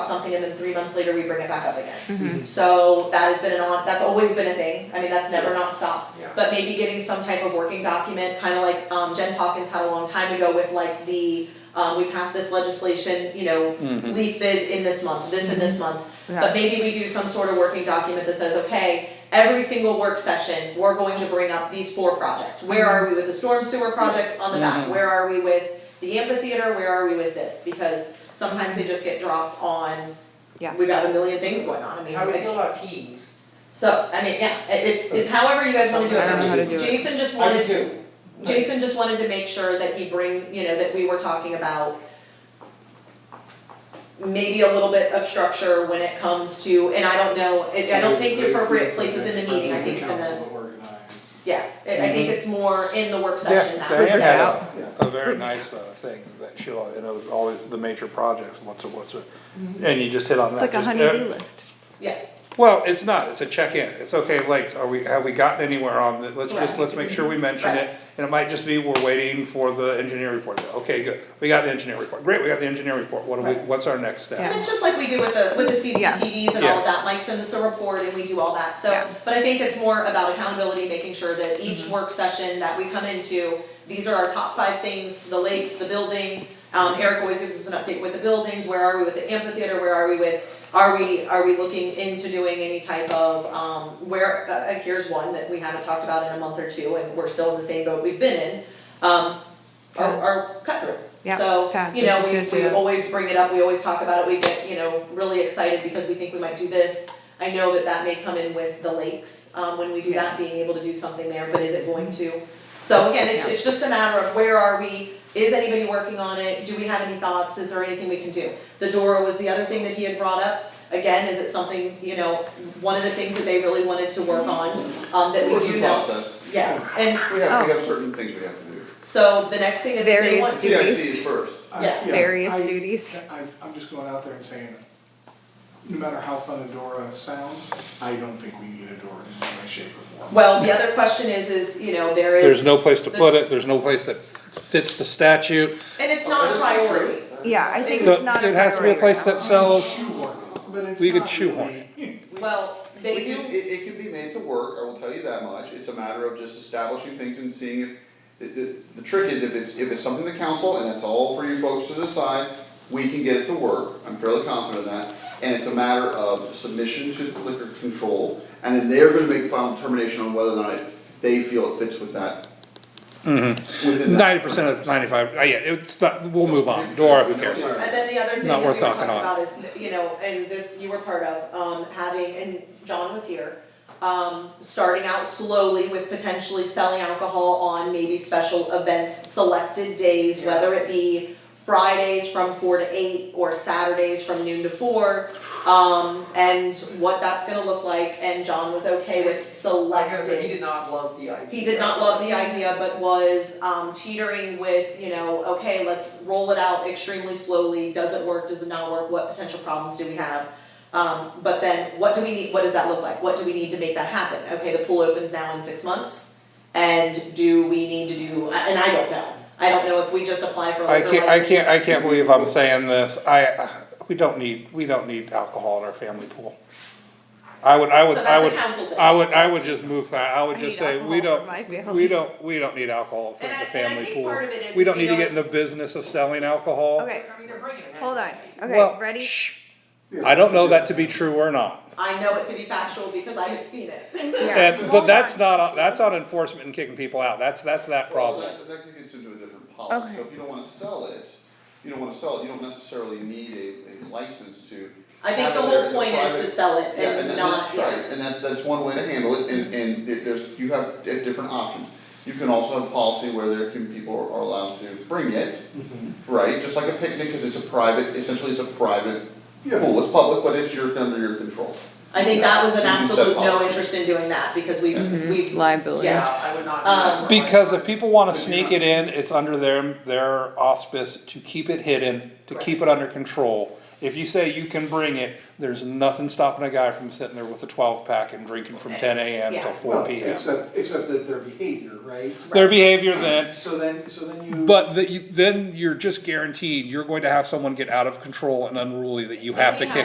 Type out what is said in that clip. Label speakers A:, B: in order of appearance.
A: something and then three months later we bring it back up again.
B: Mm-hmm.
C: Mhm.
A: So that has been an on, that's always been a thing, I mean, that's never not stopped.
B: Yeah.
A: But maybe getting some type of working document, kind of like um Jen Hawkins had a long time ago with like the, um we passed this legislation, you know,
B: Mm-hmm.
D: Mhm.
A: leaf bid in this month, this in this month.
C: Yeah.
A: But maybe we do some sort of working document that says, okay, every single work session, we're going to bring up these four projects. Where are we with the storm sewer project on the back?
B: Mm-hmm.
D: Mhm.
A: Where are we with the amphitheater? Where are we with this? Because sometimes they just get dropped on,
C: Yeah.
A: we got a million things going on, I mean,
B: How do
A: I-
B: we feel about teas?
A: so, I mean, yeah, it- it's, it's however you guys wanna do it.
C: I don't know how to do it.
A: Jason just
B: I do
A: wanted,
B: too.
A: Jason just wanted to make sure that he bring, you know, that we were talking about maybe a little bit of structure when it comes to, and I don't know, it- I don't think the appropriate place is in the meeting, I think it's in the, yeah, I I
B: Mm-hmm.
A: think it's more in the work session
D: Yeah,
A: now.
D: Diane had a,
C: out.
D: a very
C: Groups
D: nice uh, thing that she, al- and it was always the major projects, what's a, what's a, and you just hit on
C: It's
D: that.
C: like a
D: just, uh,
C: honey-do list.
A: Yeah,
D: Well, it's not, it's a check-in, it's okay, like, are we, have we gotten anywhere on it, let's just,
A: Right.
D: let's make sure we mention
A: Right.
D: it, and it might just be, we're waiting for the engineer report, okay, good, we got the engineer report, great, we got the engineer report, what do we,
A: Right.
D: what's our next step?
C: Yeah.
A: It's just like we do with the, with the
C: Yeah.
A: CCTVs and all of that, Mike sends us a report and we do all that, so,
C: Yeah. Mm-hmm.
A: but I think it's more about accountability, making sure that each work session that we come into, these are our top five things, the lakes, the building, um,
C: Mm-hmm.
A: Eric always gives us an update with the buildings, where are we with the amphitheater, where are we with, are we, are we looking into doing any type of, um, where, uh, uh, here's one that we haven't talked about in a month or two, and we're still in the same boat we've been in, um, our,
C: Pads.
A: our cut through.
C: Yeah,
A: So,
C: pads,
A: you
C: I was
A: know,
C: just
A: we,
C: gonna say
A: we
C: that.
A: always bring it up, we always talk about it, we get, you know, really excited because we think we might do this. I know that that may come in with the lakes, um, when we do that, being able to do something there, but is it going to? So again, it's,
C: Yeah.
A: it's just a matter of where are we, is anybody working on it, do we have any thoughts, is there anything we can do? The Dora was the other thing that he had brought up, again, is it something, you know, one of the things that they really wanted to work on, um, that we
E: What's
A: do
E: the
A: know.
E: process?
A: Yeah, and
E: We have, we have certain things we have to do.
A: so the next thing is if they
C: Various
A: want to.
C: Duties.
E: CIC first.
A: Yeah.
C: Various duties.
F: I, I'm just going out there and saying, no matter how fun Adora sounds, I don't think we need Adora in any way, shape or form.
A: Well, the other question is, is, you know, there is.
D: There's no place to put it, there's no place that fits the statute,
A: And it's not a
E: That is Oh, true.
A: priority.
C: Yeah, I think
D: So
C: it's not a
D: it has to be a
C: priority
D: place
C: right
D: that
C: now.
D: sells,
F: Shoehorn it, but it's
D: We could
F: not
D: shoehorn
F: really-
A: Well,
E: We
A: they
E: can-
A: do,
E: It, it can be made to work, I will tell you that much, it's a matter of just establishing things and seeing if, the, the, the trick is if it's, if it's something the council, and that's all for you folks to decide, we can get it to work, I'm fairly confident of that, and it's a matter of submission to liquor control, and then they're gonna make final determination on whether or not it, they feel it fits with that. Within that.
D: ninety percent of ninety-five, uh, yeah, it's not, Mm-hmm. we'll move on, Dora, who cares?
E: Yeah.
A: and then the other thing that
D: Not
A: we were
D: worth
A: talking
D: talking
A: about is, you know, and this you were part of, um, having, and John was here. Um, starting out slowly with potentially selling alcohol on maybe special events, selected days, whether it be Fridays from four to eight or Saturdays from noon to four. Um, and what that's gonna look like, and John was okay with
B: Like
A: selected.
B: I said, he did not love the idea.
A: he did not love the idea, but was um teetering with, you know, okay, let's roll it out extremely slowly, does it work, does it not work, what potential problems do we have? Um, but then, what do we need, what does that look like, what do we need to make that happen, okay, the pool opens now in six months? And do we need to do, and I don't know, I don't know if we just apply for a
D: I
A: liquor
D: can't, I can't, I
A: license.
D: can't believe I'm saying this, I, uh, we don't need, we don't need alcohol in our family pool. I would, I would,
A: So
D: I
A: that's a
D: would,
A: council thing.
D: I would, I would just move, my- I would
C: I
D: just
C: need
D: say,
C: alcohol for
D: we don't,
C: my family.
D: we don't, we don't need alcohol for
A: And
D: the
A: I- and I
D: family
A: think
D: pool.
A: part of it is
D: We don't
A: we
D: need to get
A: don't-
D: in the business of selling alcohol.
C: Okay,
B: I mean, they're bringing it.
C: hold on, okay,
D: Well,
C: ready?
D: shh.
F: Yeah,
D: I don't know that
F: that's
D: to
F: a
D: be true or not,
A: I know it to be factual because I have seen it.
C: Yeah.
D: and,
C: Hold
D: but
C: on.
D: that's not, that's on enforcement and kicking people out, that's, that's that
E: Well,
D: problem.
E: that, that gets into a different policy, so
C: Okay.
E: if you don't wanna sell it, you don't wanna sell it, you don't necessarily need a, a license to.
A: I think
E: have
A: the
E: it there
A: whole
E: as a
A: point is to
E: private-
A: sell it
E: Yeah, and
A: and
E: that-
A: not,
E: that's
A: yeah.
E: right, and that's, that's one way to handle it, and, and it- there's, you have di- different options. You can also have policy where there can, people are allowed to bring it, right, just like a picnic, cause it's a private, essentially it's a private
F: Yeah.
E: pool, it's public, but it's your, under your control.
A: I think that was an
E: You can set
A: absolute no
E: policy.
A: interest in doing that, because we, we,
C: Liability.
B: Yeah,
A: yeah,
B: I would not.
A: Um,
B: do that.
D: Because if people wanna sneak it in, it's under their, their auspice to keep it hidden, to keep it under control. If you say you can bring it, there's nothing stopping a guy from sitting there with a twelve pack and drinking from ten AM
A: Yeah.
D: till
F: Well,
D: four PM.
F: except, except that their behavior, right?
D: Their behavior then,
F: So then, so then you.
D: but that you, then you're just guaranteed, you're going to have someone get out of control and unruly that you have to
A: Yeah.
D: kick